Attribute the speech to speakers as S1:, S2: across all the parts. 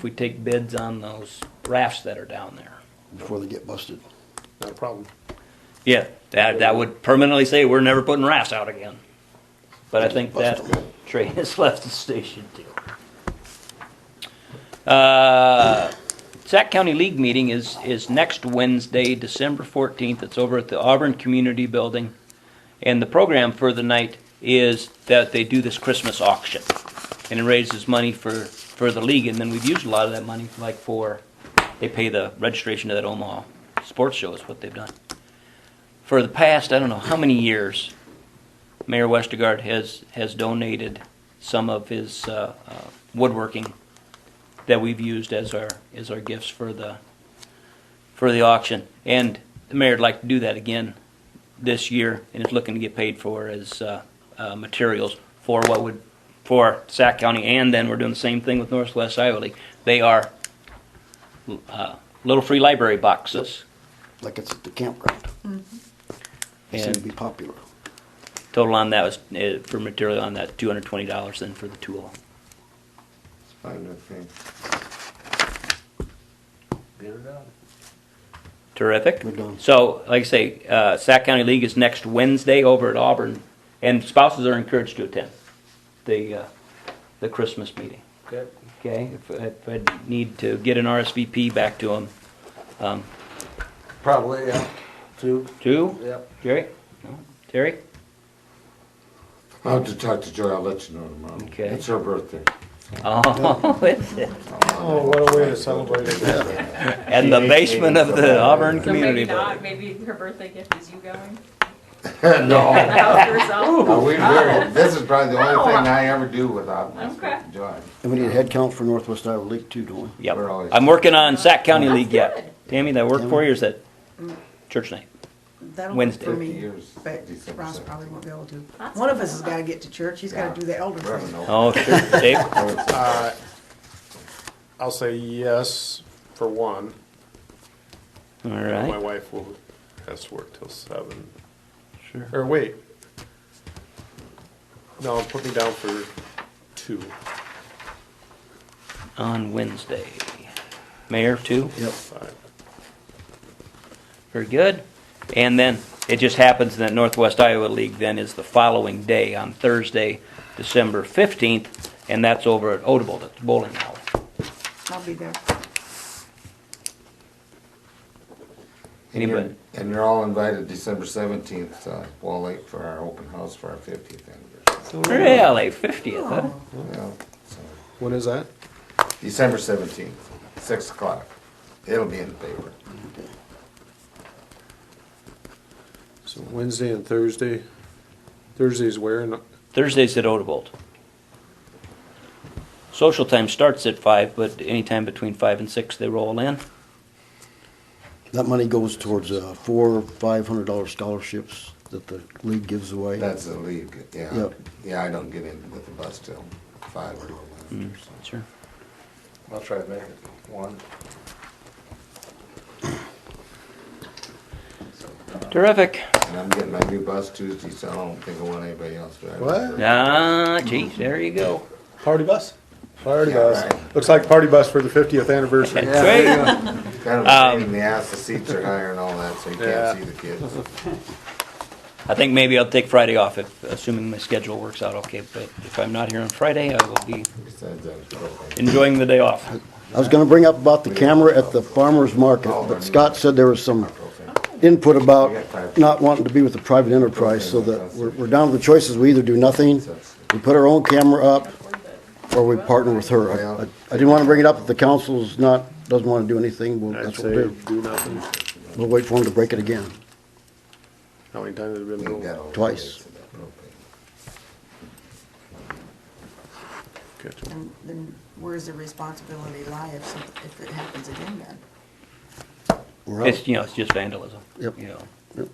S1: if we take bids on those rafts that are down there.
S2: before they get busted.
S3: Not a problem.
S1: Yeah, that, that would permanently say we're never putting rafts out again. But I think that train has left the station too. Uh, Sac County League meeting is, is next Wednesday, December fourteenth. It's over at the Auburn Community Building. And the program for the night is that they do this Christmas auction. And it raises money for, for the league, and then we've used a lot of that money, like for, they pay the registration to that Omaha sports show is what they've done for the past, I don't know how many years, Mayor Westergaard has, has donated some of his uh, uh, woodworking that we've used as our, as our gifts for the, for the auction. And the mayor'd like to do that again this year, and is looking to get paid for as uh, uh, materials for what would, for Sac County, and then we're doing the same thing with Northwest Iowa League. They are uh, little free library boxes.
S2: Like it's at the campground. They seem to
S1: And
S2: be popular.
S1: Total on that was, uh, for material on that, two hundred twenty dollars then for the tool.
S4: It's fine with me.
S3: Get it out.
S1: Terrific.
S2: We're done.
S1: So, like I say, uh, Sac County League is next Wednesday over at Auburn, and spouses are encouraged to attend the, uh, the Christmas meeting.
S3: Okay.
S1: Okay, if, if I need to get an RSVP back to them. Um,
S3: Probably, yeah. Two.
S1: two,
S3: Yep.
S1: Jerry? No, Terry?
S4: I'll have to talk to Joy, I'll let you know tomorrow.
S1: Okay.
S4: It's her birthday.
S1: Oh, is it?
S3: Oh, what a way to celebrate it.
S1: And the basement of the Auburn
S5: So maybe
S1: Community
S5: not,
S1: Building.
S5: maybe her birthday gift is you going
S4: No,
S5: out yourself.
S4: no, Oh, we very, this is probably the
S5: No.
S4: only thing I ever do without my
S5: Okay.
S4: Joy.
S2: And we need a head count for Northwest Iowa League too, don't we?
S1: Yep.
S4: We're always-
S1: I'm working on Sac County
S6: That's
S1: League yet.
S6: good.
S1: Tammy, that work for you or is that church night?
S6: That'll work
S1: Wednesday.
S6: for
S4: Fifty
S6: me,
S4: years,
S6: but
S4: December
S6: Ross
S4: seventh.
S6: probably won't be able to.
S5: That's
S6: One of us
S5: fine.
S6: has gotta get to church, he's
S4: Yeah.
S6: gotta do the elder
S4: We're having
S6: thing.
S4: no-
S1: Oh,
S4: uh,
S1: sure. Dave?
S3: I'll say yes for one.
S1: All
S3: My
S1: right.
S3: wife will, has to work till seven.
S1: Sure.
S3: Or wait. No, put me down for two.
S1: On Wednesday. Mayor, too?
S2: Yep.
S3: Five.
S1: Very good. And then it just happens that Northwest Iowa League then is the following day on Thursday, December 15th, and that's over at Odebolt at the bowling alley.
S6: I'll be there.
S4: And you're-
S1: Anybody?
S4: And you're all invited December seventeenth, uh, Wall Lake for our open house for our fiftieth anniversary.
S1: Really? 50th, huh?
S4: Yeah, so,
S3: When is that?
S4: December seventeenth, six o'clock. It'll be in the paper.
S3: So Wednesday and Thursday. Thursday's where? No-
S1: Thursday's at Odebolt. Social time starts at 5, but anytime between 5 and 6 they roll in.
S2: That money goes towards uh, four, five hundred dollar scholarships that the league gives away.
S4: That's the league, yeah.
S2: Yep.
S4: Yeah, I don't get in with the bus till five or eleven or something.
S1: Sure.
S4: I'll try to make it one.
S1: Terrific.
S4: And I'm getting my new bus Tuesday, so I don't think I want anybody else driving.
S3: What?
S1: Ah, geez, there you go.
S3: Party bus. Party
S4: Yeah,
S3: bus.
S4: right.
S3: Looks like party bus for the 50th anniversary.
S4: Yeah, there you go. Kind of a
S1: Um,
S4: pain in the ass, the seats are higher and all that, so you
S3: Yeah.
S4: can't see the kids.
S1: I think maybe I'll take Friday off, if, assuming my schedule works out okay. But if I'm not here on Friday, I will be
S4: Besides that, it's okay.
S1: enjoying the day off.
S2: I was gonna bring up about the camera at the farmer's market,
S3: Oh,
S2: but Scott said there was some input about not wanting to be with the private enterprise, so that we're, we're down to the choices, we either do nothing, we put our own camera up, or we partner with her. I- I I didn't wanna bring it up, if the council's not, doesn't wanna do anything, well,
S3: I'd
S2: that's what
S3: say
S2: we'll do.
S3: do nothing.
S2: We'll wait for him to break it again.
S3: How many times have we been
S4: Ain't got
S3: going?
S4: all the
S2: Twice.
S4: kids in that propane.
S3: Gotcha.
S6: And then where's the responsibility lie if, some- if it happens again then?
S2: We're out.
S1: It's, you know, it's just vandalism.
S2: Yep.
S1: You know.
S2: Yep.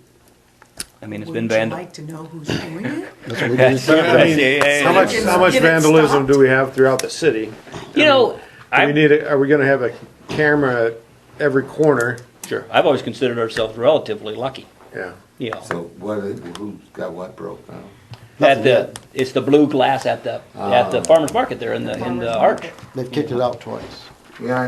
S1: I mean, it's been
S6: Wouldn't you
S1: vandal.
S6: like to know who's doing it?
S2: That's what we did.
S3: I mean,
S1: Yeah, yeah, yeah.
S3: How much, how much
S6: Get it
S3: vandalism
S6: stopped.
S3: do we have throughout the city?
S1: You know,
S3: Do we
S1: I,
S3: need, a- are we gonna have a camera at every corner?
S1: sure, I've always considered ourselves relatively lucky,
S3: Yeah.
S1: you know.
S4: So what, is- who's got what broke now?
S1: At the, it's the blue glass at the, at the
S4: Ah.
S1: farmer's market there in the, in
S6: Farmer's
S1: the arch.
S6: market.
S2: They've kicked it out twice.
S4: Yeah, I